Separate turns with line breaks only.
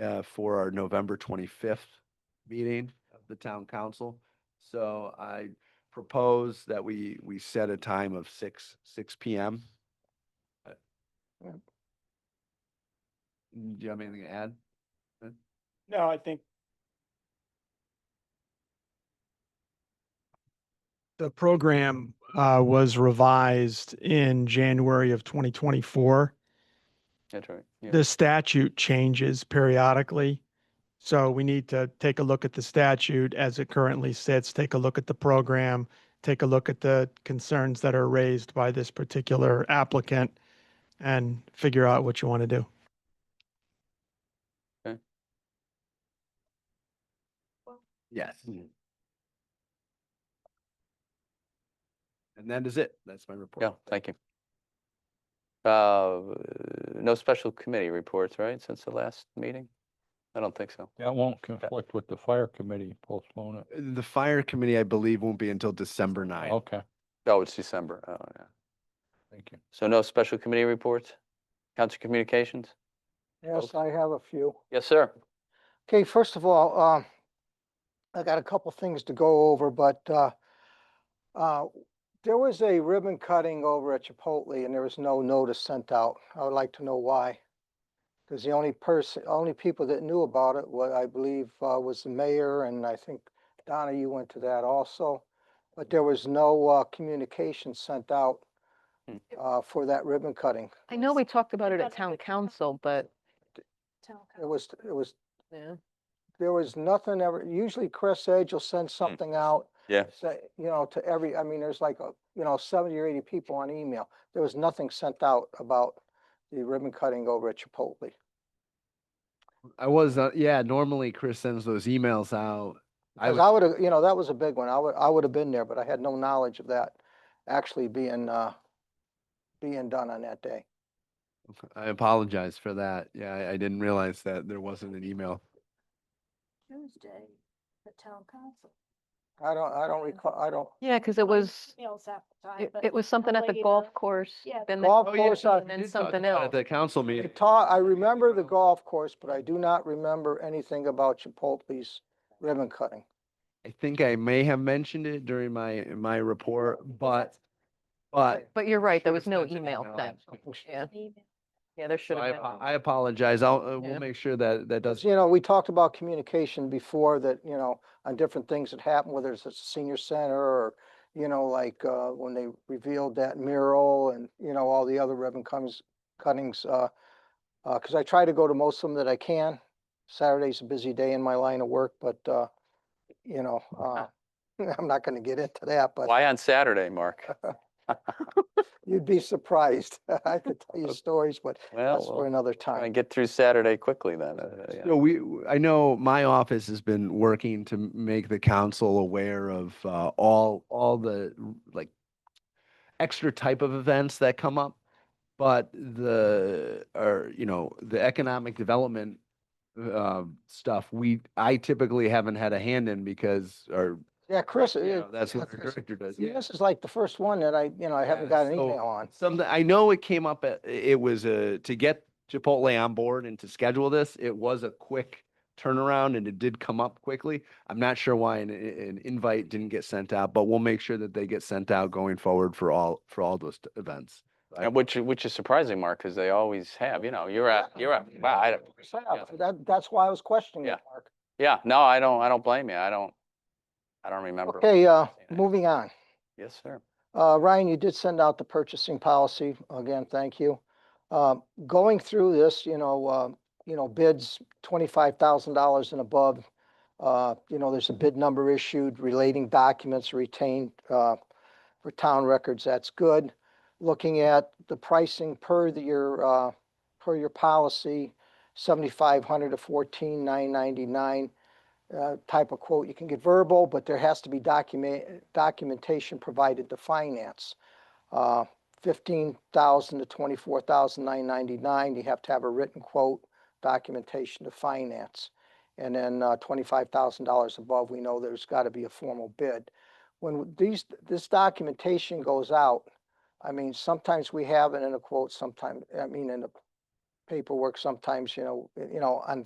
uh, for our November twenty-fifth meeting of the town council. So I propose that we, we set a time of six, six P M. Uh, Mm, Do you have anything to add?
No, I think
The program uh, was revised in January of 2024.
That's right. yeah.
The statute changes periodically. So we need to take a look at the statute as it currently sits, take a look at the program, take a look at the concerns that are raised by this particular applicant and figure out what you want to do.
Yes. And that is it. That's my report.
Yeah, thank you. Uh, no special committee reports, right, since the last meeting? I don't think so.
That won't conflict with the fire committee, postpone it.
The fire committee, I believe, won't be until December ninth.
Okay,
Oh, it's December. Oh, yeah.
thank you.
So no special committee reports? Council Communications?
Yes, I have a few.
Yes, sir.
Okay, first of all, um, I got a couple things to go over, but, uh, uh, there was a ribbon cutting over at Chipotle and there was no notice sent out. I would like to know why. Because the only person, only people that knew about it, what I believe, uh, was the mayor and I think Donna, you went to that also. But there was no, uh, communication sent out,
Hmm.
uh, for that ribbon cutting.
I know we talked about it at town
at town
council, but,
It was, it was
yeah,
there was nothing ever, usually Chris Edge will send something out.
Yeah.
Say, you know, to every, I mean, there's like, a you know, seventy or eighty people on email. There was nothing sent out about the ribbon cutting over at Chipotle.
I was, uh, yeah, normally Chris sends those emails out. I
Cause
was,
I would have, you know, that was a big one. I would, I would have been there, but I had no knowledge of that actually being, uh, being done on that day.
I apologize for that. Yeah, I, I didn't realize that there wasn't an email.
Tuesday, the town council.
I don't, I don't recall, I don't,
yeah, because it was,
Emails half the time,
it-
but.
it was something at the
lady
golf
that-
course.
yeah,
then the
golf
Oh, yeah,
course,
no,
I,
and then
you did talk
something
about it At
else.
the uh, council meeting.
ta- I remember the golf course, but I do not remember anything about Chipotle's ribbon cutting.
I think I may have mentioned it during my, my report, but, but.
But you're right, there was
Should've
no
sent an
email sent. Yeah,
Email.
yeah, there
So
should
I,
have
apo-
been.
I apologize. I'll, uh, we'll
Yeah.
make sure that, that does.
Because, you know, we talked about communication before that, you know, on different things that happen, whether it's a senior center or, you know, like, uh, when they revealed that mural and, you know, all the other ribbon cuttings, cuttings, uh, uh, cause I try to go to most of them that I can. Saturday's a busy day in my line of work, but, uh, you know, uh, I'm not gonna get into that, but
Why on Saturday, Mark?
you'd be surprised. I could tell you stories, but that's for
Well,
another
trying to
time.
get through Saturday quickly then. uh, yeah.
No, we, w- I know my office has been working to m- make the council aware of uh, all, all the r- like extra type of events that come up. But the, or, you know, the economic development uh, stuff, we, I typically haven't had a hand in because, or,
Yeah, Chris,
you
uh,
know, that's what
Chris-
our director does. yeah.
This is like the first one that I, you know, I haven't
Yeah,
got an
so-
email on.
Something, I know it came up, at- it was a, to get Chipotle on board and to schedule this, it was a quick turnaround and it did come up quickly. I'm not sure why an, an invite didn't get sent out, but we'll make sure that they get sent out going forward for all, for all those t- events. I-
And which, which is surprising, Mark, because they always have, you know, you're at, you're at, wow, I don't,
Yeah,
yeah.
That, that's why I was questioning
Yeah.
it, Mark.
yeah, no, I don't, I don't blame you. I don't, I don't remember.
Okay, uh,
seeing it.
moving on.
Yes, sir.
Uh, Ryan, you did send out the purchasing policy. Again, thank you. Um, going through this, you know, uh, you know, bids twenty-five thousand dollars and above. Uh, you know, there's a bid number issued relating documents retained, uh, for town records. That's good. Looking at the pricing per the, your, uh, per your policy, seventy-five hundred to fourteen nine ninety-nine uh, type of quote. You can get verbal, but there has to be document, documentation provided to finance. Uh, Fifteen thousand to twenty-four thousand nine ninety-nine, you have to have a written quote, documentation to finance. And then uh, twenty-five thousand dollars above, we know there's got to be a formal bid. When these, this documentation goes out, I mean, sometimes we have it in a quote, sometimes, I mean, in the paperwork, sometimes, you know, you know, on